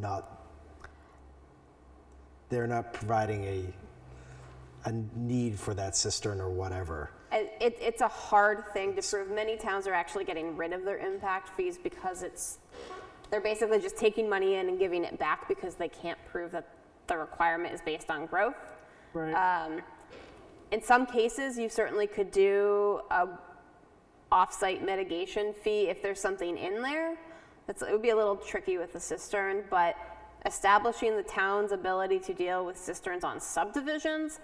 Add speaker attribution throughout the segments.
Speaker 1: not they're not providing a a need for that cistern or whatever.
Speaker 2: It, it- it's a hard thing to prove. Many towns are actually getting rid of their impact fees because it's, they're basically just taking money in and giving it back because they can't prove that the requirement is based on growth. Um,
Speaker 3: Right.
Speaker 2: In some cases, you certainly could do a off-site mitigation fee if there's something in there. That's, it would be a little tricky with the cistern, but establishing the town's ability to deal with cisterns on subdivisions,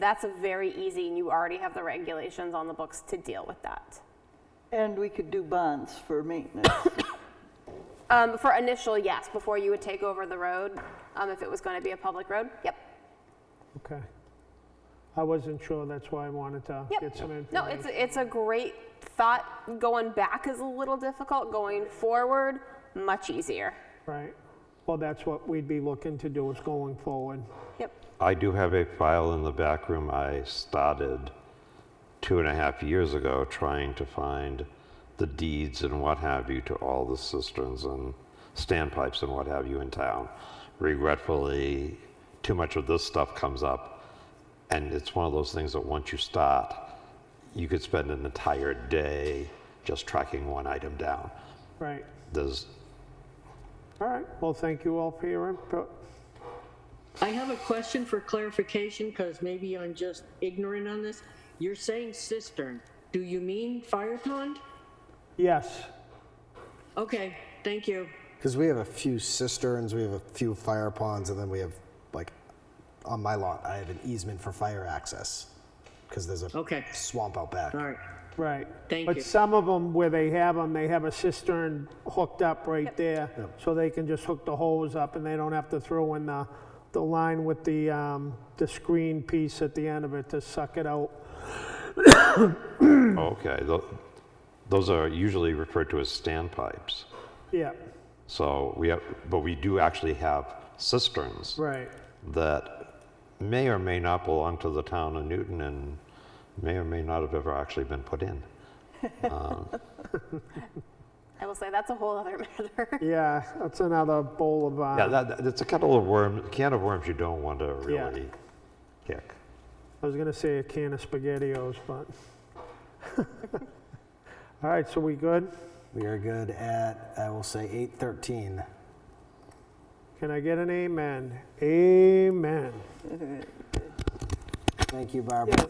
Speaker 2: that's a very easy, and you already have the regulations on the books to deal with that.
Speaker 3: And we could do bonds for maintenance.
Speaker 2: Um, for initial, yes, before you would take over the road, um, if it was going to be a public road, yep.
Speaker 4: Okay. I wasn't sure, that's why I wanted to
Speaker 2: Yep.
Speaker 4: get some information.
Speaker 2: No, it's a, it's a great thought. Going back is a little difficult. Going forward, much easier.
Speaker 4: Right. Well, that's what we'd be looking to do is going forward.
Speaker 2: Yep.
Speaker 5: I do have a file in the back room I started two and a half years ago trying to find the deeds and what have you to all the cisterns and standpipes and what have you in town. Regretfully, too much of this stuff comes up, and it's one of those things that once you start, you could spend an entire day just tracking one item down.
Speaker 4: Right.
Speaker 5: There's
Speaker 4: All right. Well, thank you all for your input.
Speaker 6: I have a question for clarification because maybe I'm just ignorant on this. You're saying cistern. Do you mean fire pond?
Speaker 4: Yes.
Speaker 6: Okay, thank you.
Speaker 1: Because we have a few cisterns, we have a few fire ponds, and then we have like on my lot, I have an easement for fire access because there's a
Speaker 6: Okay.
Speaker 1: swamp out back.
Speaker 6: All right.
Speaker 4: Right.
Speaker 6: Thank
Speaker 4: But
Speaker 6: you.
Speaker 4: some of them, where they have them, they have a cistern hooked up right there, so they can just hook the hose up, and they don't have to throw in the, the line with the, um, the screen piece at the end of it to suck it out.
Speaker 5: okay, tho- those are usually referred to as standpipes.
Speaker 4: Yeah,
Speaker 5: So we have, but we do actually have cisterns
Speaker 4: right.
Speaker 5: that may or may not belong to the town of Newton and may or may not have ever actually been put in.
Speaker 2: I will say that's a whole other matter.
Speaker 4: Yeah, that's another bowl of,
Speaker 5: Yeah,
Speaker 4: uh,
Speaker 5: that, that- it's a kettle of worms, can of worms you don't want to
Speaker 4: Yeah.
Speaker 5: really kick.
Speaker 4: I was gonna say a can of SpaghettiOs, but. All right, so we good?
Speaker 1: We are good at I will say eight thirteen.
Speaker 4: Can I get an amen? Amen.
Speaker 1: Thank you, Barbara.